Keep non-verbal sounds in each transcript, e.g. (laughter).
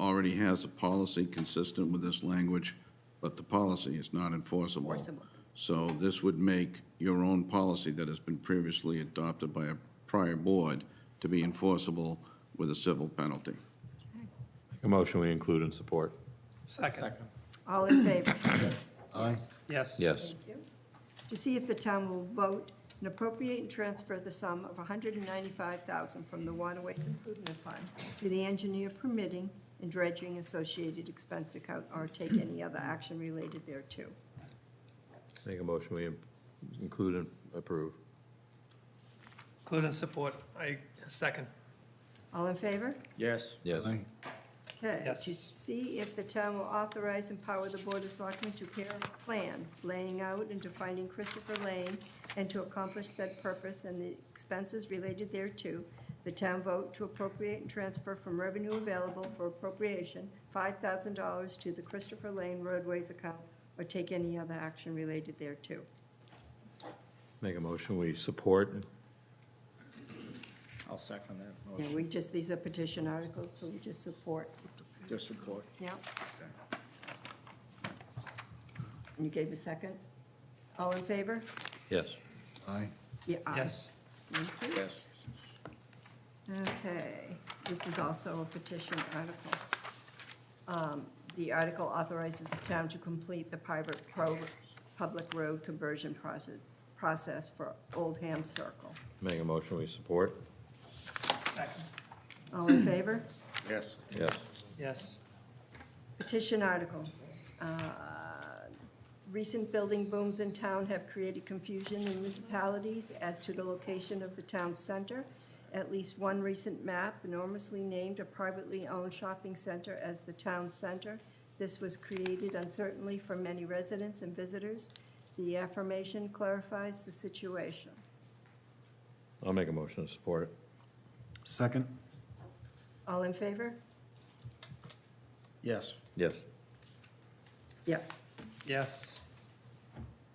already has a policy consistent with this language, but the policy is not enforceable. Enforceable. So this would make your own policy that has been previously adopted by a prior board to be enforceable with a civil penalty. A motion we include and support. Second. All in favor? Aye. Yes. Yes. Thank you. To see if the town will vote and appropriate and transfer the sum of $195,000 from the Waterways Improvement Fund to the engineer permitting and dredging associated expense account or take any other action related thereto. Make a motion we include and approve. Include and support. I, second. All in favor? Yes. Yes. Aye. Okay. Yes. To see if the town will authorize and power the Board of Selectmen to prepare a plan, laying out and defining Christopher Lane, and to accomplish said purpose and the expenses related thereto, the town vote to appropriate and transfer from revenue available for appropriation five thousand dollars to the Christopher Lane roadways account, or take any other action related thereto. Make a motion we support. I'll second that Now, motion. we just, these are petition articles, so we just support. Just support. Yep. And you gave a second? All in favor? Yes. Aye. Yeah. aye. Yes. Thank you. Yes. Okay, this is also a petition article. Um, The article authorizes the town to complete the private pro, public road conversion process, process for Oldham Circle. Make a motion we support. Second. All in favor? Yes. Yes. Yes. Petition article. Uh, Recent building booms in town have created confusion in municipalities as to the location of the town center. At least one recent map enormously named a privately owned shopping center as the town center. This was created uncertainly for many residents and visitors. The affirmation clarifies the situation. I'll make a motion to support. Second? All in favor? Yes. Yes. Yes. Yes.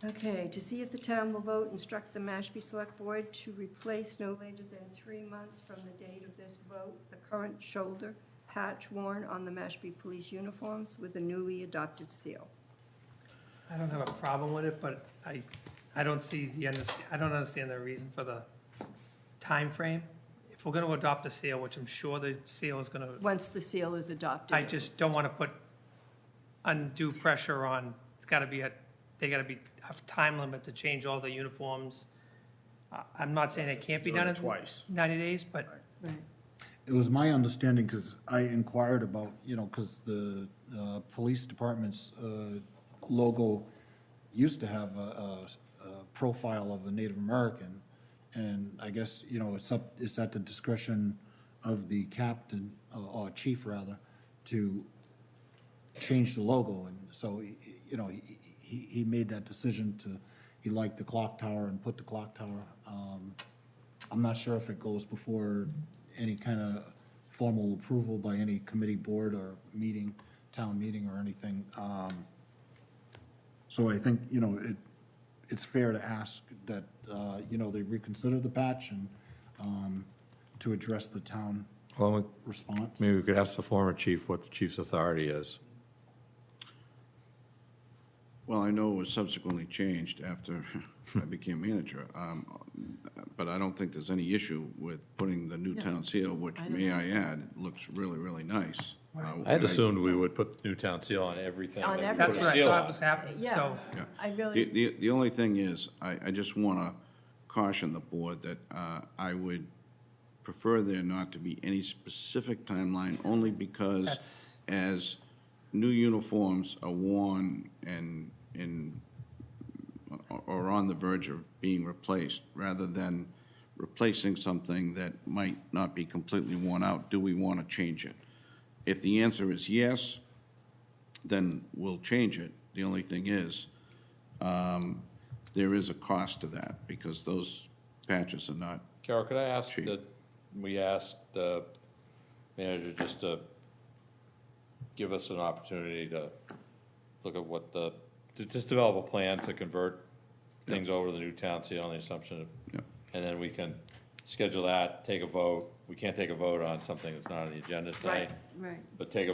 Okay, to see if the town will vote, instruct the Mashpee Select Board to replace no later than three months from the date of this vote, the current shoulder patch worn on the Mashpee police uniforms with a newly adopted seal. I don't have a problem with it, but I, I don't see the, underst- I don't understand the reason for the time frame. If we're going to adopt a seal, which I'm sure the seal is going to, Once the seal is adopted. I just don't want to put undue pressure on, it's got to be a, they got to be, have a time limit to change all the uniforms. I- I'm not saying it can't be Doing done it in twice. 90 days, but Right. It was my understanding, because I inquired about, you know, because the uh, police department's uh, logo used to have a, a- a profile of a Native American, and I guess, you know, it's up, it's at the discretion of the captain, uh, or chief rather, to change the logo, and so, he- he- you know, he, he he made that decision to, he liked the clock tower and put the clock tower. um, I'm not sure if it goes before any kind of formal approval by any committee board or meeting, town meeting or anything. Um, So I think, you know, it, it's fair to ask that, uh, you know, they reconsider the patch and um, to address the town Well, we- response. maybe we could ask the former chief what the chief's authority is. Well, I know it was subsequently changed after (laughs) I became manager, um, but I don't think there's any issue with putting the new town seal, which, I don't may I add, looks really, really nice. Uh, I had assumed we would put new town seal on everything. On that we put a that's what I seal thought on. was happening, Yeah, so. Yeah. I The, really, the, the only thing is, I, I just want to caution the board that uh, I would prefer there not to be any specific timeline, only because That's- as new uniforms are worn and, and, or- or on the verge of being replaced, rather than replacing something that might not be completely worn out, do we want to change it? If the answer is yes, then we'll change it. The only thing is, um, there is a cost to that, because those patches are not, Carol, could I ask Chief. that, we asked the manager just to give us an opportunity to look at what the, to just develop a plan to convert things over to the new town seal on the assumption Yeah. of, and then we can schedule that, take a vote. We can't take a vote on something that's not on the agenda right, tonight, right. but take a